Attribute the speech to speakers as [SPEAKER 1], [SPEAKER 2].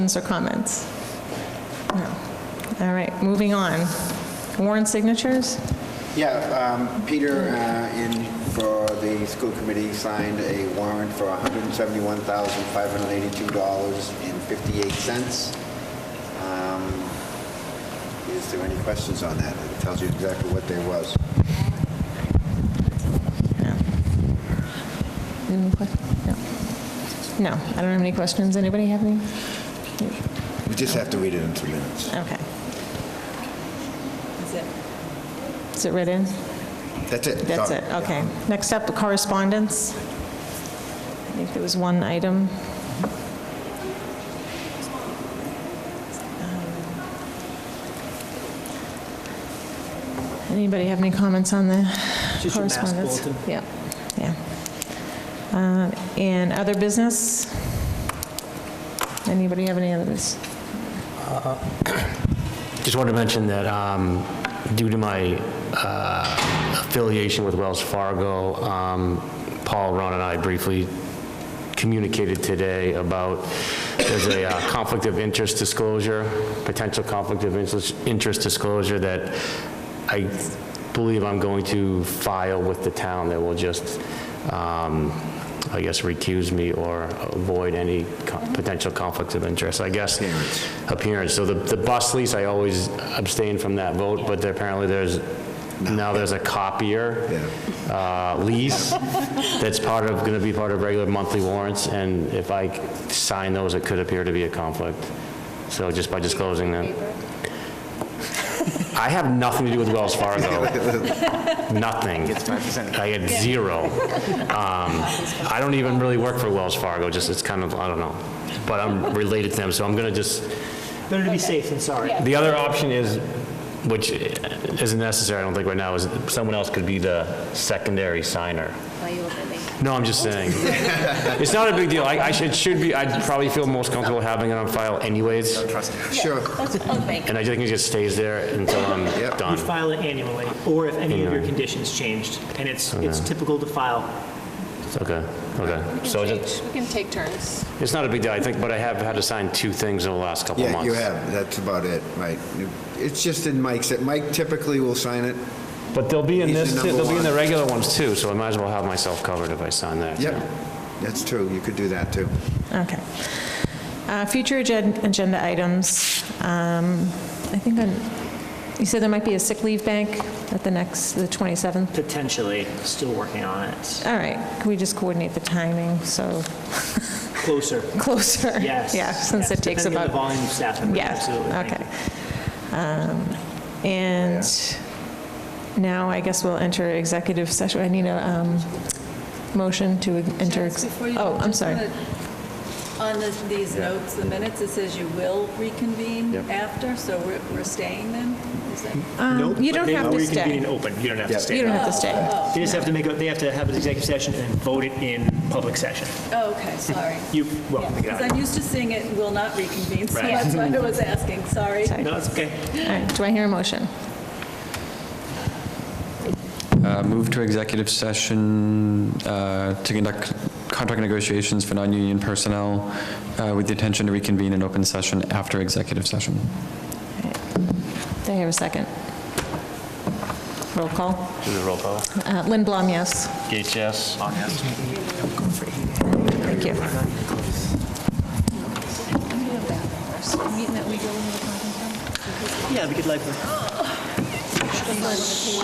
[SPEAKER 1] Questions or comments? No. All right, moving on. Warrant signatures?
[SPEAKER 2] Yeah, um, Peter, uh, in for the school committee, signed a warrant for $171,582.58. Um, Is there any questions on that? It tells you exactly what there was.
[SPEAKER 1] Any que- No, No, I don't have any questions. Anybody have any?
[SPEAKER 2] We just have to read it in two minutes.
[SPEAKER 1] Okay. Is it read in?
[SPEAKER 2] That's it.
[SPEAKER 1] That's
[SPEAKER 2] Done.
[SPEAKER 1] it, okay. Next up, correspondence. I think there was one item. Um, Anybody have any comments on the
[SPEAKER 3] Just your mask
[SPEAKER 1] correspondence?
[SPEAKER 3] bulletin.
[SPEAKER 1] Yeah, yeah. Uh, And other business? Anybody have any other business?
[SPEAKER 4] Just wanted to mention that um, due to my uh, affiliation with Wells Fargo, um, Paul, Ron, and I briefly communicated today about there's a uh, conflict of interest disclosure, potential conflict of interest- interest disclosure that I believe I'm going to file with the town that will just, um, I guess, recuse me or avoid any co- potential conflict of interest, I guess. Appearance. So the the bus lease, I always abstain from that vote, but apparently there's, now there's a copier uh, lease that's part of, going to be part of regular monthly warrants, and if I sign those, it could appear to be a conflict. So just by disclosing that. I have nothing to do with Wells Fargo. Nothing. Gets 5%. I get zero. Um, I don't even really work for Wells Fargo, just it's kind of, I don't know. But I'm related to them, so I'm going to just,
[SPEAKER 3] Better to be safe than sorry.
[SPEAKER 4] the other option is, which isn't necessary, I don't think right now, is someone else could be the secondary signer.
[SPEAKER 5] Why you look at me?
[SPEAKER 4] No, I'm just saying. It's not a big deal. I, I should, it should be, I'd probably feel most comfortable having it on file anyways.
[SPEAKER 2] Sure.
[SPEAKER 4] And I think it just stays there until I'm
[SPEAKER 2] Yep.
[SPEAKER 4] done.
[SPEAKER 3] File it annually, or if any of your
[SPEAKER 4] Annually.
[SPEAKER 3] conditions changed. And it's, it's typical to file.
[SPEAKER 4] Okay, okay. So it's,
[SPEAKER 5] We can take turns.
[SPEAKER 4] it's not a big deal, I think, but I have had to sign two things in the last couple of
[SPEAKER 2] Yeah,
[SPEAKER 4] months.
[SPEAKER 2] you have, that's about it, right. It's just in Mike's, Mike typically will sign it.
[SPEAKER 4] But they'll be in
[SPEAKER 2] He's
[SPEAKER 4] this,
[SPEAKER 2] the
[SPEAKER 4] too-
[SPEAKER 2] number
[SPEAKER 4] they'll be in the
[SPEAKER 2] one.
[SPEAKER 4] regular ones too, so I might as well have myself covered if I sign that.
[SPEAKER 2] Yep, that's true, you could do that, too.
[SPEAKER 1] Okay. Uh, Future agen- agenda items, um, I think, on- you said there might be a sick leave bank at the next, the 27th?
[SPEAKER 3] Potentially, still working on it.
[SPEAKER 1] All right, can we just coordinate the timing, so
[SPEAKER 3] Closer,
[SPEAKER 1] closer?
[SPEAKER 3] yes.
[SPEAKER 1] Yeah, since
[SPEAKER 3] yes.
[SPEAKER 1] it takes
[SPEAKER 3] Depending on the
[SPEAKER 1] about...
[SPEAKER 3] volume of staff members,
[SPEAKER 1] Yeah,
[SPEAKER 3] absolutely. Thank
[SPEAKER 1] okay.
[SPEAKER 3] you.
[SPEAKER 1] Um, And now I guess we'll enter executive session. I need a um, motion to enter... ex-
[SPEAKER 6] Chance, before you-
[SPEAKER 1] Oh, I'm
[SPEAKER 6] just
[SPEAKER 1] sorry.
[SPEAKER 6] wanna- On this- these notes, the minutes, it says you will reconvene after, so we're we're staying then? Is that?
[SPEAKER 3] Nope,
[SPEAKER 1] Um, you
[SPEAKER 3] but
[SPEAKER 1] don't
[SPEAKER 3] they-
[SPEAKER 1] have
[SPEAKER 3] oh,
[SPEAKER 1] to
[SPEAKER 3] we can
[SPEAKER 1] stay.
[SPEAKER 3] be in open, you don't have to
[SPEAKER 1] You don't
[SPEAKER 3] stay.
[SPEAKER 1] have to stay.
[SPEAKER 6] Oh,
[SPEAKER 3] They just have to make, a- they have to have an executive session and vote it in public session.
[SPEAKER 6] Oh, okay, sorry.
[SPEAKER 3] You, well, we
[SPEAKER 6] Because
[SPEAKER 3] got
[SPEAKER 6] I'm
[SPEAKER 3] it.
[SPEAKER 6] used to seeing it will not reconvene, so
[SPEAKER 3] Right.
[SPEAKER 6] that's why I was asking, sorry.
[SPEAKER 3] No, that's okay.
[SPEAKER 6] oh.
[SPEAKER 1] All right, do I hear a motion?
[SPEAKER 7] Uh, Move to executive session uh, to conduct contract negotiations for non-union personnel uh, with the intention to reconvene in open session after executive session.
[SPEAKER 1] Do I hear a second? Roll call.
[SPEAKER 4] Do the roll call.
[SPEAKER 1] Uh, Lynn Blom, yes.
[SPEAKER 4] Gates, yes.
[SPEAKER 1] Thank you.
[SPEAKER 3] Yeah, we could like,